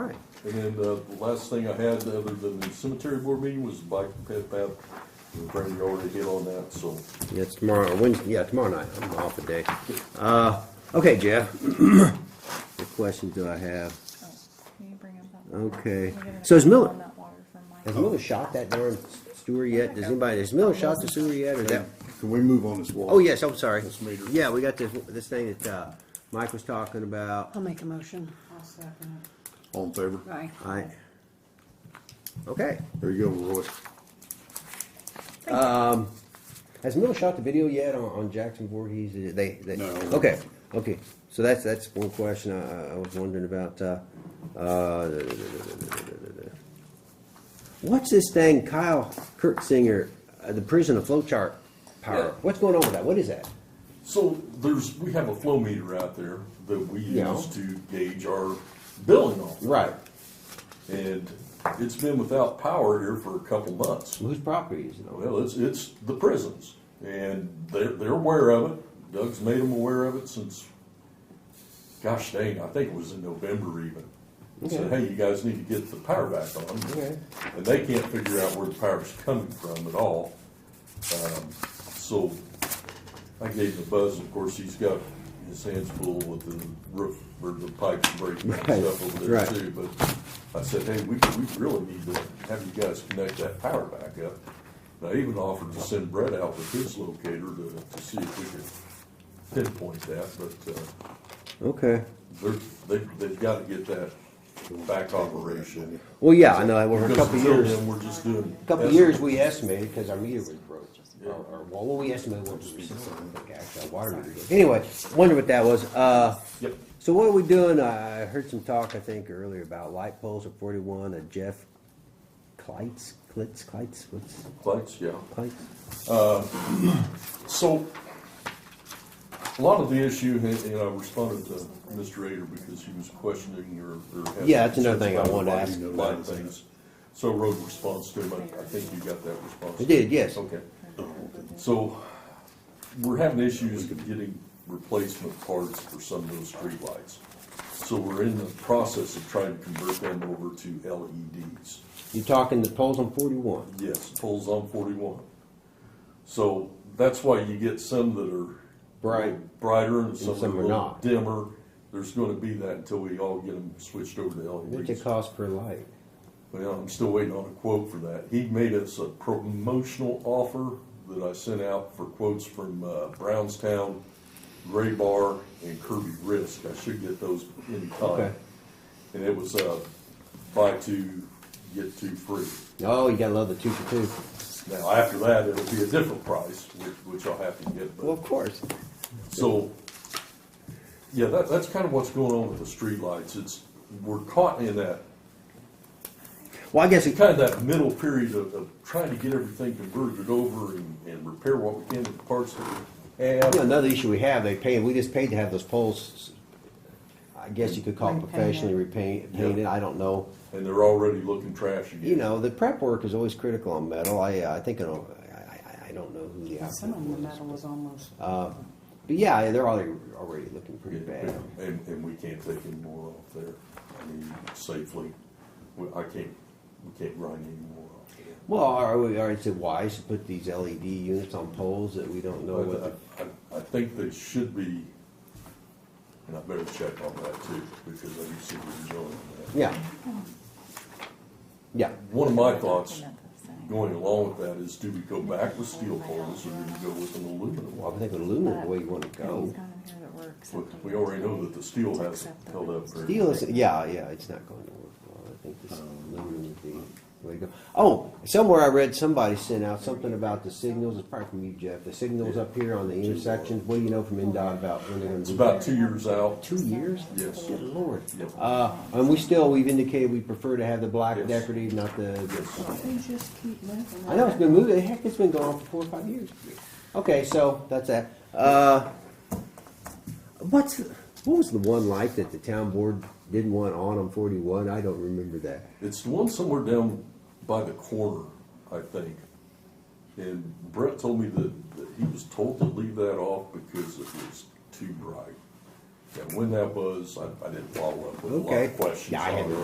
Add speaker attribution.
Speaker 1: And then uh, the last thing I had, other than the cemetery board meeting, was the bike and pet path. And Brandy already hit on that, so
Speaker 2: Yeah, it's tomorrow, or Wednesday, yeah, tomorrow night, I'm off a day. Uh, okay, Jeff. What questions do I have?
Speaker 3: Can you bring up that? water?
Speaker 2: Okay,
Speaker 3: We're gonna
Speaker 2: so has
Speaker 3: get
Speaker 2: Miller-
Speaker 3: on that water from Mike.
Speaker 2: Has Miller shot that darn sewer yet? Does anybody, has Miller shot the sewer yet, or that?
Speaker 4: Can we move on this wall?
Speaker 2: Oh, yes, I'm sorry.
Speaker 4: This meter.
Speaker 2: Yeah, we got this, this thing that, uh, Mike was talking about.
Speaker 5: I'll make a motion. I'll second
Speaker 4: All in favor?
Speaker 5: it. Aye.
Speaker 2: I, okay.
Speaker 4: There you go, Roy.
Speaker 2: Has Miller shot the video yet on, on Jackson Voorhees? Is it- They, they,
Speaker 4: No.
Speaker 2: okay, okay. So that's, that's one question I, I- I was wondering about, uh, uh, da- da- da- da- da- da- da- da. what's this thing Kyle Kurtzinger, uh, the prison of flowchart
Speaker 1: Yeah.
Speaker 2: power? What's going on with that? What is that?
Speaker 1: So there's, we have a flow meter out there that we
Speaker 2: Yeah.
Speaker 1: use to gauge our billing off.
Speaker 2: Right.
Speaker 1: And it's been without power here for a couple months.
Speaker 2: Whose property is it on?
Speaker 1: Well, it's, it's the prisons and they're, they're aware of it. Doug's made them aware of it since, gosh dang, I think it was in November even. He Said,
Speaker 2: Okay.
Speaker 1: hey, you guys need to get the power back on.
Speaker 2: Okay.
Speaker 1: And they can't figure out where the power's coming from at all. Um, so I gave him a buzz, of course, he's got his hands full with the roof, or the pipes breaking and
Speaker 2: Right,
Speaker 1: stuff over there
Speaker 2: right.
Speaker 1: too, but I said, hey, we, we really need to have you guys connect that power back up. And I even offered to send Brett out with his locator to, to see if we could pinpoint that, but, uh,
Speaker 2: Okay.
Speaker 1: they're, they've, they've gotta get that back operational.
Speaker 2: Well, yeah, I know. that We're a
Speaker 1: Because
Speaker 2: couple
Speaker 1: until
Speaker 2: years.
Speaker 1: then, We're just doing.
Speaker 2: Couple
Speaker 1: that's-
Speaker 2: years we estimated because our meter was broke. Or,
Speaker 1: Yeah.
Speaker 2: or well, what we estimated what we were actually our water meter. was. Anyway, wonder what that was. Uh,
Speaker 1: Yep.
Speaker 2: so what are we doing? I heard some talk I think earlier about light poles at 41. A Jeff Kleitz, Klitz, Kleitz, what's
Speaker 1: Lights, yeah.
Speaker 2: Kleitz?
Speaker 1: So, a lot of the issue, and and I responded to Mr. Rader because he was questioning or. or had
Speaker 2: Yeah, that's another thing I
Speaker 1: concerns
Speaker 2: wanted
Speaker 1: about
Speaker 2: to
Speaker 1: light-
Speaker 2: ask.
Speaker 1: Light things. So I wrote a response to him. I I think you got that response.
Speaker 2: I did, yes.
Speaker 1: Okay. So, we're having issues getting replacement parts for some of those streetlights. So we're in the process of trying to convert them over to E LEDs.
Speaker 2: You're talking the poles on 41.
Speaker 1: Yes, pulls on forty-one. So that's why you get some that are.
Speaker 2: Bright.
Speaker 1: Brighter and some that are
Speaker 2: some
Speaker 1: a
Speaker 2: are
Speaker 1: little
Speaker 2: not.
Speaker 1: dimmer. There's gonna be that until we all get them switched over to
Speaker 2: What's it
Speaker 1: LEDs.
Speaker 2: cost per light?
Speaker 1: Well, I'm still waiting on a quote for that. He made us a promotional offer that I sent out for quotes from uh, Brownstown, Gray Bar, and Kirby Risk. I should get those in
Speaker 2: Okay.
Speaker 1: time. And it was, uh, buy two, get two free.
Speaker 2: Oh, you gotta love the two for two.
Speaker 1: Now, after that, it'll be a different price, which, which I'll have to get,
Speaker 2: Well,
Speaker 1: but,
Speaker 2: of course.
Speaker 1: so, yeah, that, that's kind of what's going on with the streetlights, it's, we're caught in that,
Speaker 2: Well, I guess it,
Speaker 1: kind of that middle period of, of trying to get everything converted over and, and repair what we can with the parts that we
Speaker 2: You know,
Speaker 1: have.
Speaker 2: another issue we have, they pay, we just paid to have those poles, I guess you could call it
Speaker 5: Repainted.
Speaker 2: professionally repainted, painted, I don't know.
Speaker 1: And they're already looking trash again.
Speaker 2: You know, the prep work is always critical on metal, I, uh, I think, I, don't- I, I- I don't know who the
Speaker 5: Some
Speaker 2: outfit
Speaker 5: of the
Speaker 2: was.
Speaker 5: metal was almost,
Speaker 2: Uh, But yeah, they're already, already looking pretty bad.
Speaker 1: And, and we can't take any more off there, I mean, safely, we, I can't, we can't grind any more off there.
Speaker 2: Well, are we, are, is it wise to put these LED units on poles that we don't know what, the-
Speaker 1: I, I- I think they should be, and I better check on that too, because I do see where you're going with that.
Speaker 2: yeah. Yeah,
Speaker 1: One of my thoughts
Speaker 3: Document
Speaker 1: going along with that is do we go back with steel poles or do we go with an aluminum
Speaker 2: well, I
Speaker 1: one?
Speaker 2: think aluminum is the way you wanna
Speaker 3: the thing.
Speaker 2: go.
Speaker 3: It's not in here that we're accepting
Speaker 1: We already know that the steel
Speaker 3: to
Speaker 1: has
Speaker 3: accept the
Speaker 1: held up very.
Speaker 2: Steel is, yeah, yeah, it's not going to work well. I think this
Speaker 1: Um,
Speaker 2: aluminum would be the way to go. Oh, somewhere I read somebody sent out something about the signals, it's probably from you, Jeff, the signals up here on the intersections. What do you know from NDOT about when they're gonna
Speaker 1: It's
Speaker 2: do
Speaker 1: about
Speaker 2: that?
Speaker 1: two years out.
Speaker 2: Two years?
Speaker 1: Yes.
Speaker 2: Good lord.
Speaker 1: Yep.
Speaker 2: Uh, and we still, we've indicated we prefer to have the black
Speaker 1: Yes.
Speaker 2: decorative, not the,
Speaker 1: Yes.
Speaker 5: they just keep moving.
Speaker 2: I know it's been moving, heck, it's been going on for four or five years. Okay, so that's that. Uh, what's, what was the one light that the town board didn't want on on forty-one? I don't remember that.
Speaker 1: It's the one somewhere down by the corner, I think. And Brett told me that, that he was told to leave that off because it was too bright. And when that was, I, I didn't follow up with a lot
Speaker 2: Okay.
Speaker 1: of questions
Speaker 2: Yeah, I
Speaker 1: on
Speaker 2: had
Speaker 1: it.